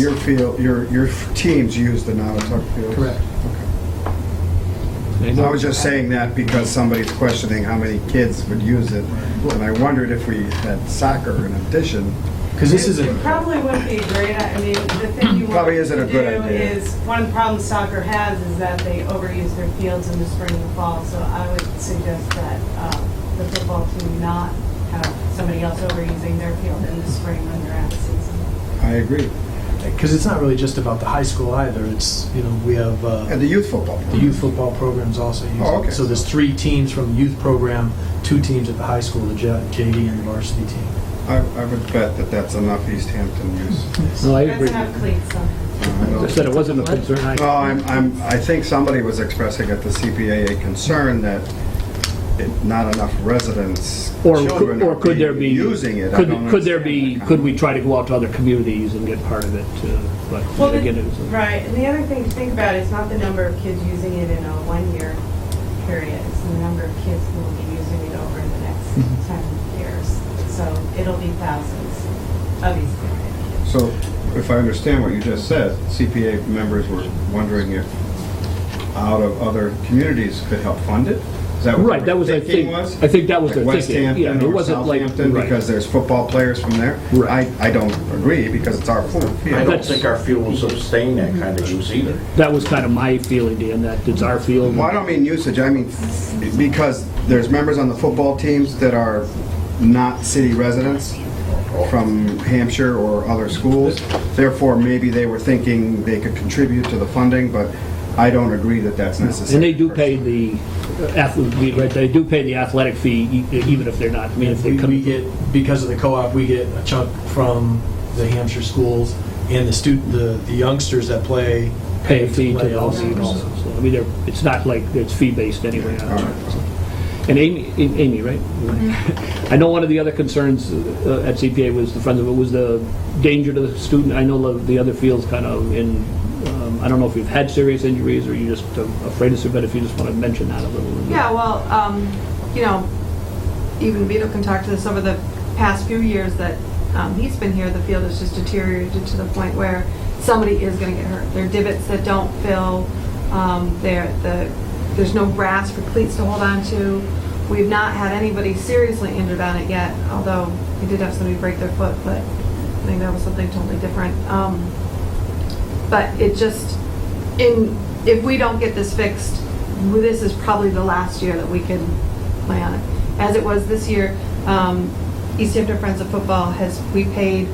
Your field, your, your teams use the Nautatuck field? Correct. I was just saying that because somebody's questioning how many kids would use it, and I wondered if we had soccer in addition. Because this is It a, probably wouldn't be a great, I mean, the thing you want Probably to isn't a do good idea. is, one problem soccer has is that they overuse their fields in the spring and fall, so I would suggest that uh, the football team not have somebody else overusing their field in the spring when they're out of season. I agree. because it's not really just about the high school either. It's, you know, we have, And uh, the youth football. the youth football programs also use Oh, okay. it. So there's three teams from the youth program, two teams at the high school, the J- JV and the varsity team. I, I would bet that that's enough East Hampton use. No, I That's agree. not cleats on. I said it wasn't a concern. Well, I- I'm, I'm, I think somebody was expressing at the CPA a concern that it- not enough residents, Or, children could- or are could there be? being, using it. I Could, don't could there be, understand. could we try to go out to other communities and get part of it, uh, but Well, then again, the- it was a- Right, and the other thing to think about is not the number of kids using it in a one-year period, it's the number of kids who will be using it over the next 10 years. So it'll be thousands of these kids. So if I understand what you just said, CPA members were wondering if out of other communities could help fund it? Is that what Right, the that was, I thinking think- I think that was Like the West thinking, yeah, Hampton it or wasn't like- Southampton, right. because there's football players from there? Right. I, I don't agree, because it's our pool. I don't That's- think our field will sustain that kind of use either. that was kind of my feeling, Dan, that it's our field. Well, I don't mean usage, I mean, because there's members on the football teams that are not city residents from Hampshire or other schools, therefore, maybe they were thinking they could contribute to the funding, but I don't agree that that's necessary. And they do pay the athletic, they do pay the athletic fee e- even if they're not, I mean, if they We we come. get, because of the co-op, we get a chunk from the Hampshire schools and the student, the the youngsters that play. pay a fee to play the league also. So, I mean, they're, it's not like it's fee-based anyway. All right. And Amy, Amy, right? I know one of the other concerns uh, at CPA was, the Friends of it, was the danger to the student. I know the- the other field's kind of in, um, I don't know if you've had serious injuries or you're just uh, afraid of it, but if you just want to mention that a little. Yeah, well, um, you know, even Vito can talk to this over the past few years that um, he's been here, the field has just deteriorated to the point where somebody is going to get hurt. There are divots that don't fill, um, there, the, there's no grass for cleats to hold on to. We've not had anybody seriously injured on it yet, although we did have somebody break their foot, but I think that was something totally different. Um, but it just, in, if we don't get this fixed, this is probably the last year that we can play on it. As it was this year, um, East Hampton Friends of Football has, we paid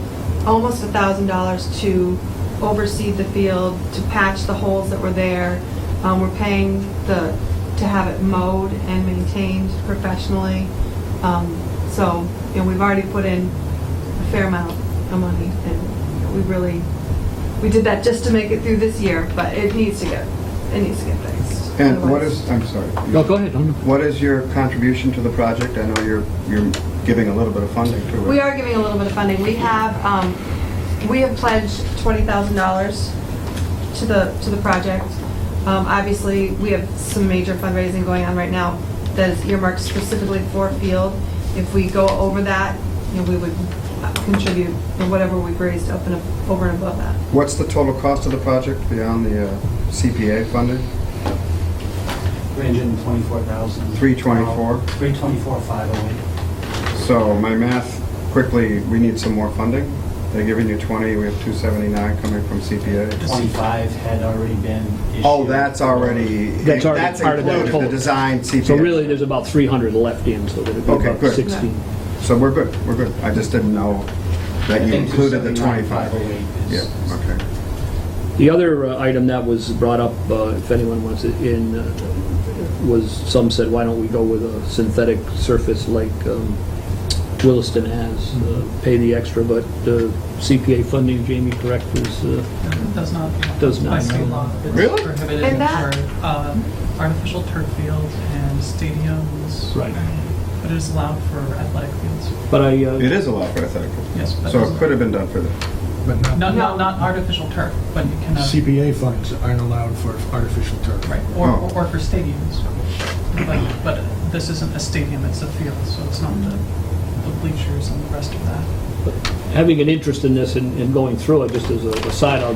almost a thousand dollars to oversee the field, to patch the holes that were there. Um, we're paying the, to have it mowed and maintained professionally. Um, so, you know, we've already put in a fair amount of money and we really, we did that just to make it through this year, but it needs to get, it needs to get fixed. And what Otherwise- is, I'm sorry. No, go ahead. I don't know. What is your contribution to the project? I know you're, you're giving a little bit of funding to it. We are giving a little bit of funding. We have, um, we have pledged twenty thousand dollars to the, to the project. Um, obviously, we have some major fundraising going on right now that is earmarked specifically for field. If we go over that, you know, we would contribute whatever we've raised up and, ab- over and above that. What's the total cost of the project beyond the uh, CPA funding? 324,000. 324? 324,508. So my math, quickly, we need some more funding. They're giving you 20, we have 279 coming from CPA. 25 had already been issued. Oh, that's already, That's already that's part of that included, the total. design CPA. So really, there's about 300 left in, so there'd be Okay, about good. 16. So we're good, we're good. I just didn't know I that you think included the 25. 279,508 Yeah, is- okay. The other uh, item that was brought up, uh, if anyone wants it in, uh, was, some said, why don't we go with a synthetic surface like um, Williston has, uh, Mm-hmm. pay the extra, but uh, CPA funding, Jamie, correct, is, uh, It Does not. Does not. By state law. Really? It's prohibited And that- for um, artificial turf fields and stadiums. Right. But it is allowed for athletic fields. but I, uh, It is allowed for athletic. Yes, but So it could have been done for that. Not, not, not artificial turf, but you can, uh, CPA funds aren't allowed for artificial turf. right, or, Oh. or for stadiums. But, but this isn't a stadium, it's a field, so it's not the the bleachers and the rest of that. having an interest in this and and going through it, just as a aside, I'll